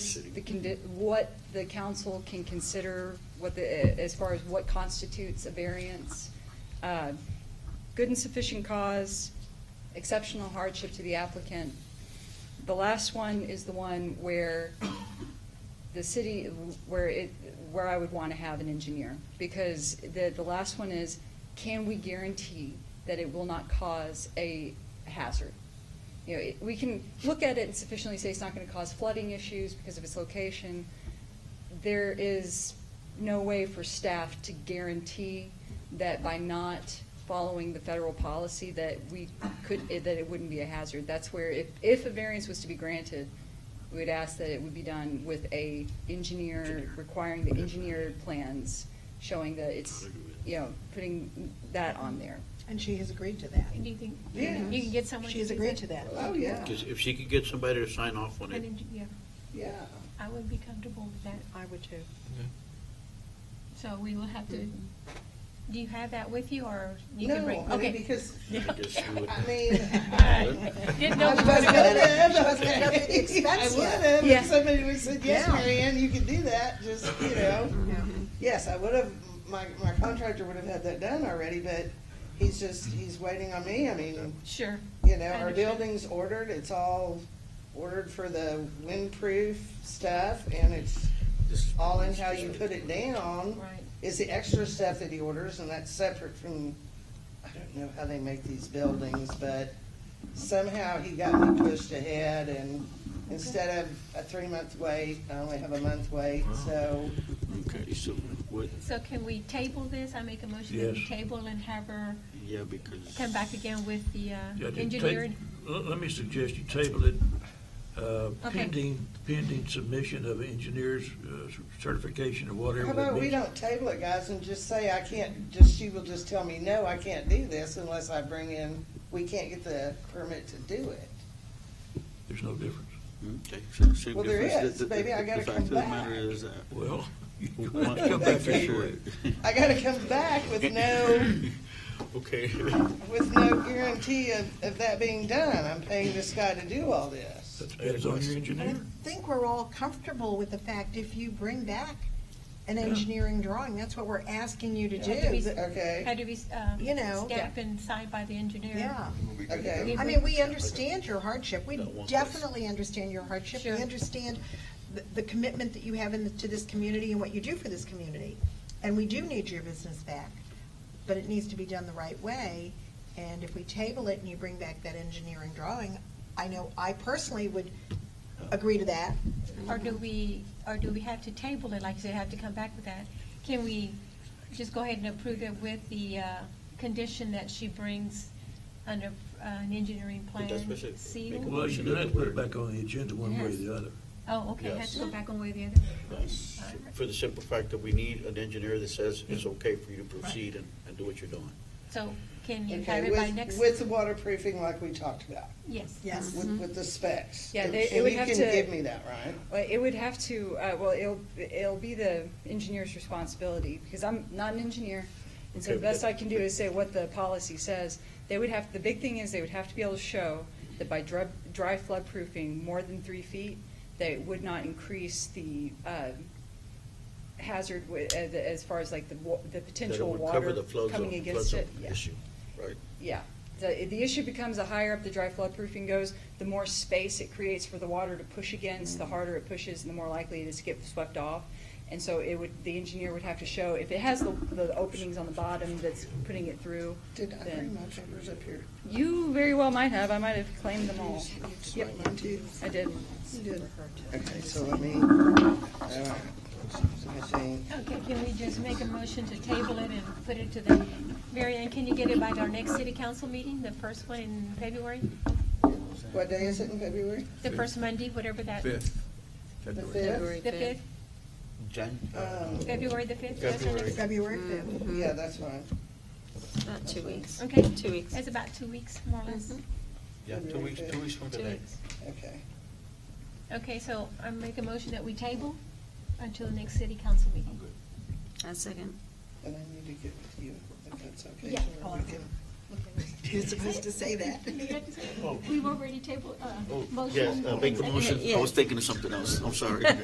the, condi- what the council can consider, what the, as far as what constitutes a variance. Uh, Good and sufficient cause, exceptional hardship to the applicant. The last one is the one where the city, where it, where I would want to have an engineer. Because the, the last one is, can we guarantee that it will not cause a hazard? You know, it- we can look at it and sufficiently say it's not going to cause flooding issues because of its location. There is no way for staff to guarantee that by not following the federal policy that we could, that it wouldn't be a hazard. That's where, if, if a variance was to be granted, we would ask that it would be done with a engineer, requiring the engineer plans, showing that it's, you know, putting that on there. And she has agreed to that. And you can, you Yeah. can- you can get someone. She has do agreed to that. Oh, yeah, Because if she could get somebody to sign off on it, And you- yeah, yeah. I would be comfortable with that. I would too. So we will have to, do you have that with you or you No, can bring? I mean, okay. because, I guess she would. I mean. Didn't I know was we were gonna, gonna- I was gonna up the expense yet. Yeah. If somebody would said, yes, Yeah. Marianne, you can do that, just, you know. Yeah. Mm-hmm. Yes, I would have, my, my contractor would have had that done already, but he's just, he's waiting on me. I mean, Sure. you know, I our understand. building's ordered, it's all ordered for the windproof stuff, and it's all in how you put it down. Right. Is the extra stuff that he orders, and that's separate from, I don't know how they make these buildings, but somehow he got me pushed ahead, and instead of a three-month wait, I only have a month wait, so, Okay, so, what, So can we table this? I make a motion that we Yes. table and have her yeah, because. come back again with the uh, Yeah, just take- engineering. Let let me suggest you table it uh, Okay. pending, pending submission of engineer's uh, certification or whatever. how about that we means. don't table it, guys, and just say, I can't, just, she will just tell me, no, I can't do this unless I bring in, we can't get the permit to do it. There's no difference. hmm, Okay, so- so Well, there if it's- is. the- the- Baby, I gotta The come fact of the back. matter is that. Well, you once- have to come once back we to do work. it- I gotta come back with no, Okay. with no guarantee of, of that being done. I'm paying this guy to do all this. That depends on your I engineer. think we're all comfortable with the fact if you bring back an engineering drawing, that's what we're asking you to do. but- Okay, Had to be, um, You know. stamped and signed by the engineer. Yeah. okay. I mean, we understand your hardship. We That one place. definitely understand your hardship. We Sure. understand the, the commitment that you have in, to this community and what you do for this community. And we do need your business back, but it needs to be done the right way. And if we table it and you bring back that engineering drawing, I know I personally would agree to that. Or do we, or do we have to table it, like you said, have to come back with that? Can we just go ahead and approve it with the uh, condition that she brings under uh, an engineering But plan that's what I said, make sealed? a- Well, you do have to put it back on the agenda one way or Yes. the other. Oh, okay, it has to go Yes. back on way the other. For the simple fact that we need an engineer that says it's okay for you to proceed and, and do what you're doing. So can you have Okay, it by with, next? with the waterproofing like we talked about, Yes. Yes. with, with the specs. Yeah, And- they- it would have And you to- can give me that, right? Well, it would have to, uh, well, it'll, it'll be the engineer's responsibility, because I'm not an engineer. And so the Okay. best I can do is say what the policy says. They would have, the big thing is they would have to be able to show that by dry, dry flood proofing more than three feet, that it would not increase the, uh, hazard wi- uh, the- as far as like the wa, the That it potential would water Cover the flood coming zone, flood against it. zone Yeah. issue, right? Yeah, the, the issue becomes the higher up the dry flood proofing goes, the more space it creates for the water to push against, Mm. the harder it pushes, and the more likely it is to get swept off. And so it would, the engineer would have to show, if it has the, the openings on the bottom that's putting it through, Did I bring then, my papers up here? you very well might have, I might have claimed them all. You just Yep. write mine too. I did. Okay, so let me, all right. So I think- Okay, can we just make a motion to table it and put it to the, Mary Ann, can you get it by our next city council meeting, the first one in February? What day is it in February? The first Monday, whatever that. The fifth? The fifth, Jan? Um, February the fifth? That's our next- February fifth. Yeah, that's fine. About two weeks. Okay. Two weeks. That's about two weeks, Mm-hmm. more or less. Yeah, two weeks, two weeks from Two today. weeks. Okay. Okay, so I make a motion that we table until the next city council meeting. A second. And I need to get with you, if that's okay. Yeah. so we can- You're supposed to say that. We've already tabled, uh, Oh, motion. yes, uh, make the motion, I was thinking of something else, I'm sorry.